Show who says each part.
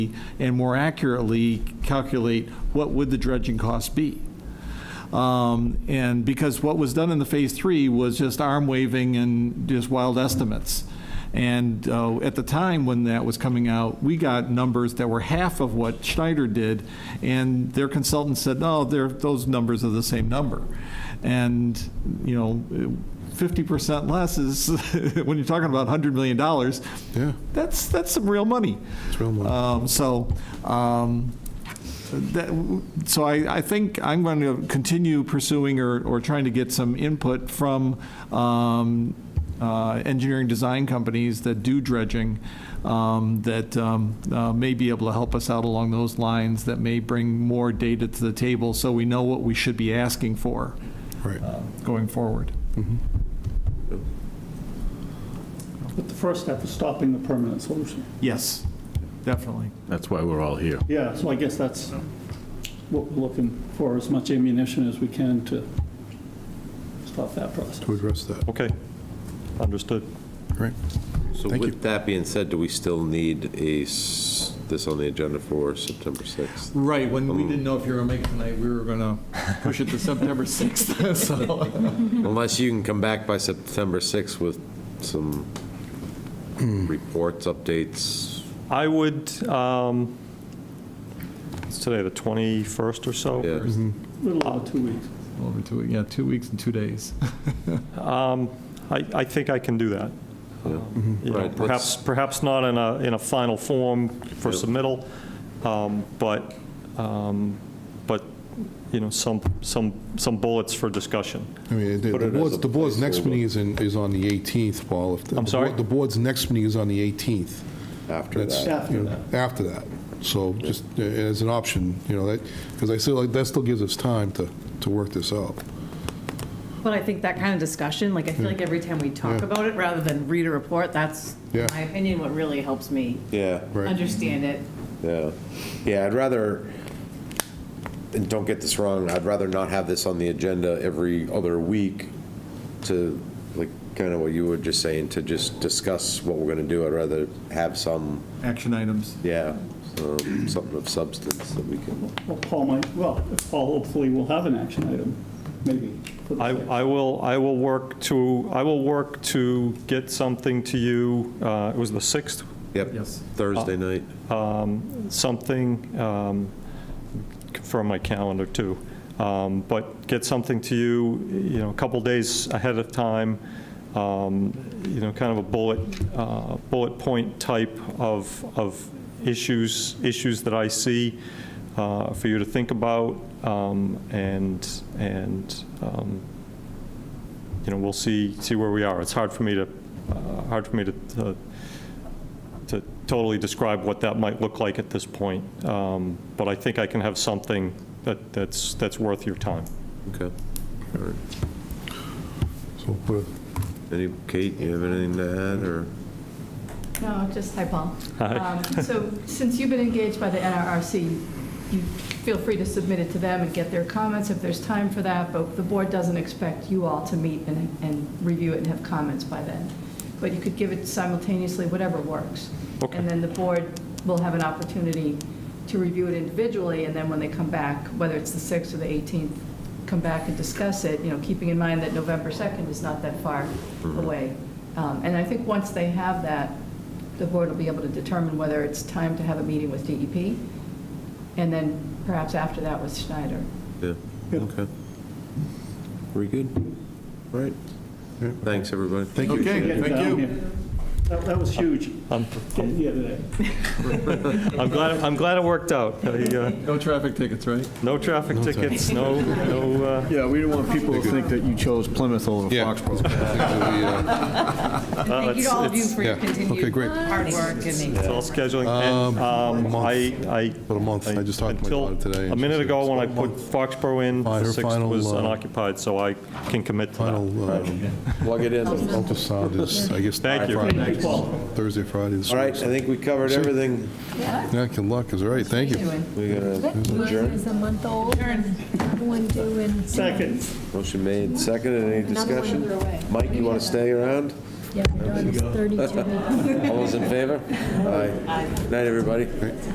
Speaker 1: and more accurately calculate what would the dredging cost be. Um, And because what was done in the Phase 3 was just arm waving and just wild estimates. And uh, at the time when that was coming out, we got numbers that were half of what Schneider did, and their consultant said, no, they're, those numbers are the same number. And, you know, 50% less is, when you're talking about $100 million,
Speaker 2: Yeah,
Speaker 1: that's, that's some real money.
Speaker 2: it's real money.
Speaker 1: Um, So, um, that, so I, I think I'm going to continue pursuing or, or trying to get some input from um, uh, engineering design companies that do dredging, um, that um, uh, may be able to help us out along those lines, that may bring more data to the table, so we know what we should be asking for
Speaker 2: Right.
Speaker 1: uh, going forward.
Speaker 3: But the first step is stopping the permanent solution.
Speaker 1: Yes, definitely.
Speaker 4: That's why we're all here.
Speaker 3: Yeah, so I guess that's what we're looking for, as much ammunition as we can to stop that process.
Speaker 2: To address that,
Speaker 5: Okay, understood.
Speaker 2: right?
Speaker 6: So
Speaker 2: Thank you.
Speaker 6: with that being said, do we still need a, s- this on the agenda for September 6th?
Speaker 1: Right, when we didn't know if you were going to make it tonight, we were going to push it to September 6th, so.
Speaker 6: Unless you can come back by September 6th with some
Speaker 2: Hmm.
Speaker 6: reports, updates,
Speaker 5: I would, um, it's today, the 21st or so?
Speaker 6: yeah.
Speaker 3: A little over two weeks.
Speaker 1: Over two, yeah, two weeks and two days.
Speaker 5: I, I think I can do that. You
Speaker 6: Yeah.
Speaker 5: know,
Speaker 6: Right, let's-
Speaker 5: Perhaps, perhaps not in a, in a final form for
Speaker 6: Yeah.
Speaker 5: submittal, um, but, um, but, you know, some, some, some bullets for discussion.
Speaker 2: I mean, the-
Speaker 6: Put
Speaker 2: the
Speaker 6: it as
Speaker 2: board's,
Speaker 6: a
Speaker 2: the board's next
Speaker 6: placeholder.
Speaker 2: meeting is in, is on the 18th, Paul. If the-
Speaker 5: I'm
Speaker 2: the
Speaker 5: sorry?
Speaker 2: board- The board's next meeting is on the 18th.
Speaker 6: After
Speaker 2: That's,
Speaker 6: that,
Speaker 3: After
Speaker 2: you know, after that. So just uh, as an option, you know, that, because I feel like that still gives us time to, to work this out.
Speaker 7: But I think that kind of discussion, like, I feel like every time we talk
Speaker 2: Yeah.
Speaker 7: about it, rather than read a report, that's, in
Speaker 2: Yeah.
Speaker 7: my opinion, what really helps me
Speaker 6: yeah,
Speaker 2: Right.
Speaker 7: understand it.
Speaker 6: yeah. Yeah, I'd rather, and don't get this wrong, I'd rather not have this on the agenda every other week to, like, kind of what you were just saying, to just discuss what we're going to do. I'd rather have some
Speaker 1: Action items.
Speaker 6: Yeah, so something of substance that we can,
Speaker 3: Well, Paul might, well, Paul hopefully will have an action item, maybe. for the
Speaker 5: I,
Speaker 3: sixth.
Speaker 5: I will, I will work to, I will work to get something to you, uh, it was the 6th,
Speaker 6: yep,
Speaker 1: Yes.
Speaker 6: Thursday night.
Speaker 5: something um, from my calendar, too. Um, But get something to you, you know, a couple days ahead of time, um, you know, kind of a bullet, uh, bullet point type of, of issues, issues that I see uh, for you to think about, um, and, and, um, you know, we'll see, see where we are. It's hard for me to, uh, hard for me to- to to totally describe what that might look like at this point, um, but I think I can have something that, that's, that's worth your time.
Speaker 6: Okay. All right.
Speaker 2: So we'll put it-
Speaker 6: Any, Kate, you have anything to add, or?
Speaker 8: No, just, hi, Paul.
Speaker 5: Hi.
Speaker 8: Um, So since you've been engaged by the NRRC, you feel free to submit it to them and get their comments if there's time for that, but the board doesn't expect you all to meet and, and review it and have comments by then. But you could give it simultaneously, whatever works.
Speaker 5: Okay.
Speaker 8: And then the board will have an opportunity to review it individually, and then when they come back, whether it's the 6th or the 18th, come back and discuss it, you know, keeping in mind that November 2nd is not that far away. Um, And I think once they have that, the board will be able to determine whether it's time to have a meeting with DEP, and then perhaps after that with Schneider.
Speaker 6: Yeah, okay. We good? All right. Thanks, everybody. Thank
Speaker 1: Okay,
Speaker 3: Getting
Speaker 1: thank
Speaker 3: down
Speaker 1: you.
Speaker 3: here. That, that was huge,
Speaker 5: I'm,
Speaker 3: getting here today.
Speaker 5: I'm glad, I'm glad it worked out. I, uh,
Speaker 1: No traffic tickets, right?
Speaker 5: No traffic tickets, no, no, uh,
Speaker 9: Yeah, we didn't want people to think that you chose Plymouth over
Speaker 2: Yeah.
Speaker 9: Foxborough.
Speaker 2: uh,
Speaker 7: And Thank you to all of you
Speaker 5: it's-
Speaker 7: for your
Speaker 2: yeah. Okay,
Speaker 7: continued
Speaker 2: great.
Speaker 7: hard work and
Speaker 5: it's all scheduling. and,
Speaker 2: a
Speaker 5: um,
Speaker 2: month.
Speaker 5: I, I.
Speaker 2: About a month. I just talked to my
Speaker 5: until
Speaker 2: daughter today,
Speaker 5: A
Speaker 2: and she
Speaker 5: minute
Speaker 2: said
Speaker 5: ago,
Speaker 2: it's
Speaker 5: when I
Speaker 2: about a
Speaker 5: put Foxborough in, the
Speaker 2: Her
Speaker 5: 6th
Speaker 2: final,
Speaker 5: was
Speaker 2: uh,
Speaker 5: unoccupied, so I can commit to that.
Speaker 2: Final um,
Speaker 6: Plug it in. All
Speaker 2: ultrasound is, I guess,
Speaker 5: Thank you.
Speaker 2: Friday, Thursday, Friday. this
Speaker 6: right, I
Speaker 2: week.
Speaker 6: think we covered everything.
Speaker 2: Yeah, good luck, is all right, thank you.
Speaker 8: Anyway.
Speaker 6: We got a
Speaker 10: One is a month old, another one due in.
Speaker 3: Second,
Speaker 6: motion made, seconded, any
Speaker 10: Another one
Speaker 6: discussion?
Speaker 10: under way.
Speaker 6: Mike, you want to stay around?
Speaker 10: Yeah, my daughter's 32 weeks.
Speaker 6: All those in favor? Aye. Night, everybody.